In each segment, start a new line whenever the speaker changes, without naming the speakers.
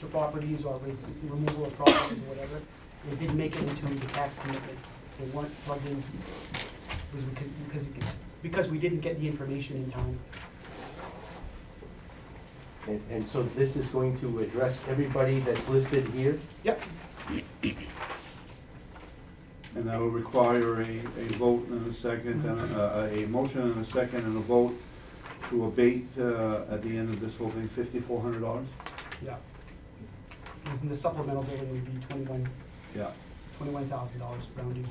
to properties or re- the removal of properties or whatever. They didn't make it into the tax commitment. They weren't plugged in because we could, because, we could- because we didn't get the information in time.
And, and so this is going to address everybody that's listed here?
Yep,
And that would require a, a vote and a second, and a, a a motion and a second and a vote to abate, uh, at the end of this whole thing, fifty-four hundred dollars?
yeah. And the supplemental billing would be twenty-one,
Yeah.
twenty-one thousand dollars rounding.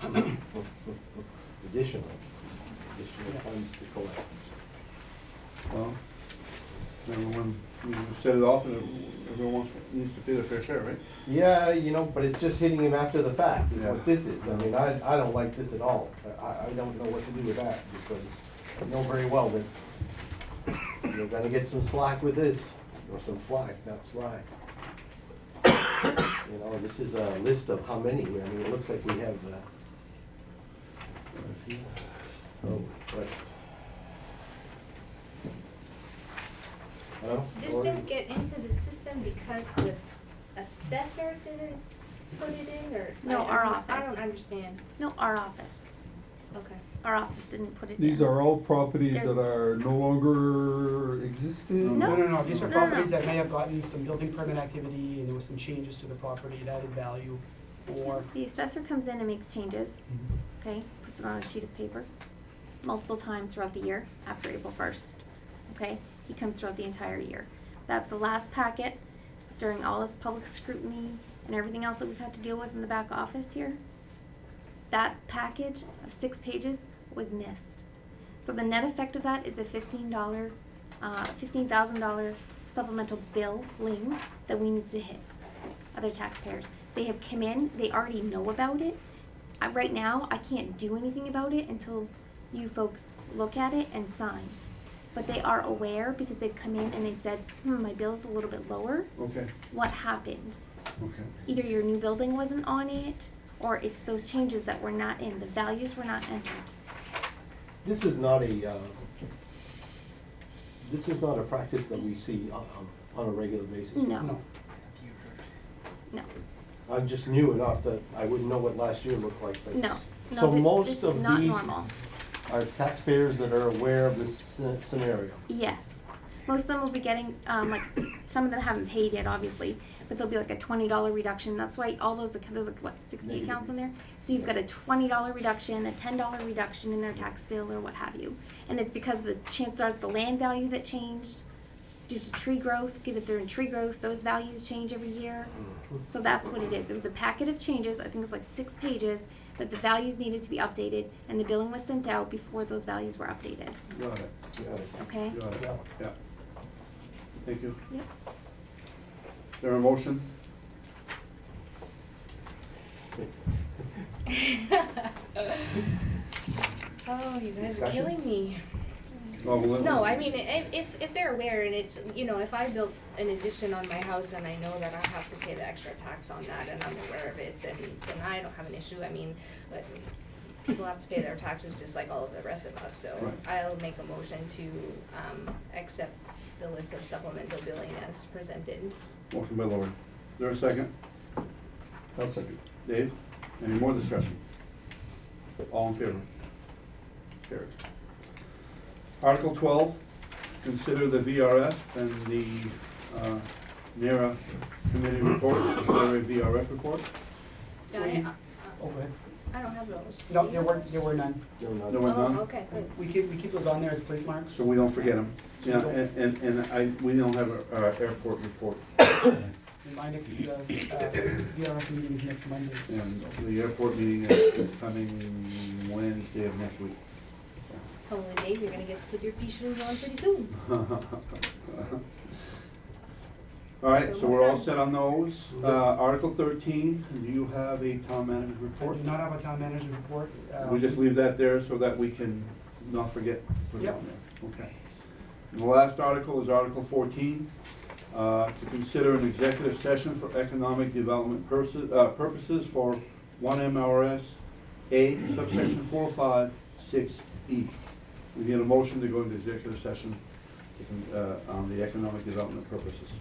Additional, additional funds to collect.
Well, everyone, you set it off, and everyone wants- needs to pay their fair share, right?
Yeah, you know, but it's just hitting him after the fact is
Yeah.
what this is. I mean, I, I don't like this at all. I, I don't know what to do with that because I know very well that you're gonna get some slack with this, or some flack, not slack. You know, this is a list of how many. I mean, it looks like we have, uh, oh, what? Hello?
This
Sorry.
didn't get into the system because the assessor didn't put it in, or?
No,
I- I
our
don't- I don't
office.
understand.
No, our office.
Okay.
Our office didn't put it in.
These are all properties that
There's-
are no longer existing?
No.
No, no, no, these are
No, no, no.
properties that may have gotten some building permit activity and there was some changes to the property that added value or.
The assessor comes in and makes changes,
Mm-hmm.
okay? Puts it on a sheet of paper multiple times throughout the year after April 1st, okay? He comes throughout the entire year. That's the last packet during all this public scrutiny and everything else that we've had to deal with in the back office here. That package of six pages was missed. So the net effect of that is a $15, uh, $15,000 supplemental billing that we need to hit. other taxpayers. They have come in, they already know about it. I, right now, I can't do anything about it until you folks look at it and sign. But they are aware because they've come in and they said, hmm, my bill's a little bit lower.
Okay,
What happened?
okay.
Either your new building wasn't on it, or it's those changes that were not in, the values were not entered.
this is not a, uh, this is not a practice that we see on, on a regular basis.
No,
No,
no,
I'm just new enough that I wouldn't know what last year looked like, but.
no,
So
no,
most
thi- this is
of
not
these-
normal.
Are taxpayers that are aware of this sce- scenario?
Yes. Most of them will be getting, um, like, some of them haven't paid yet, obviously, but there'll be like a twenty dollar reduction. That's why all those, acc- there's like, what, sixty
Negative.
accounts on there? So you've got a twenty dollar reduction, a ten dollar reduction in their tax bill or what have you. And it's because the chances are it's the land value that changed due to tree growth, because if they're in tree growth, those values change every year.
Mm.
So that's what it is. It was a packet of changes, I think it's like six pages, that the values needed to be updated, and the billing was sent out before those values were updated,
Got it,
Got it.
okay?
got it, yeah. Thank you.
Yep.
Is there a motion?
Oh, you guys are
Discussion?
killing me.
Well, we'll-
No, I mean, i- if, if they're aware and it's, you know, if I built an addition on my house and I know that I have to pay the extra tax on that and I'm aware of it, then, then I don't have an issue. I mean, but people have to pay their taxes just like all of the rest of us, so
Right.
I'll make a motion to, um, accept the list of supplemental billing as presented.
Motion by Lori. Is there a second?
I'll second.
Dave, any more discussion? All in favor? Carried. Article twelve, consider the VRF and the uh, NARA committee report, NARA VRF report.
Yeah, I,
oh, go ahead.
I don't have those.
No, there were, there were none.
No, no,
No
no.
one's
Oh,
on,
okay, good.
We keep, we keep those on there as place marks.
so we don't forget them.
So we
Yeah,
don't-
and, and- and I, we don't have our airport report,
And My next, the, uh, VRF meeting is next Monday,
and
so.
the airport meeting is is coming Wednesday of next week.
Hopefully, Dave, you're gonna get to put your pea shoes on pretty soon.
All right, so we're all
Almost
set on those. Uh, Article thirteen, do you have a town manager
I
report?
do not have a town manager's report. um,
We just leave that there so that we can not forget. to put it on there. Okay. And the last article is Article fourteen, uh, to consider an executive session for economic development purposes, uh, purposes for one MRS A subsection four five six E. We need a motion to go into executive session, to con- uh, on the economic development purposes.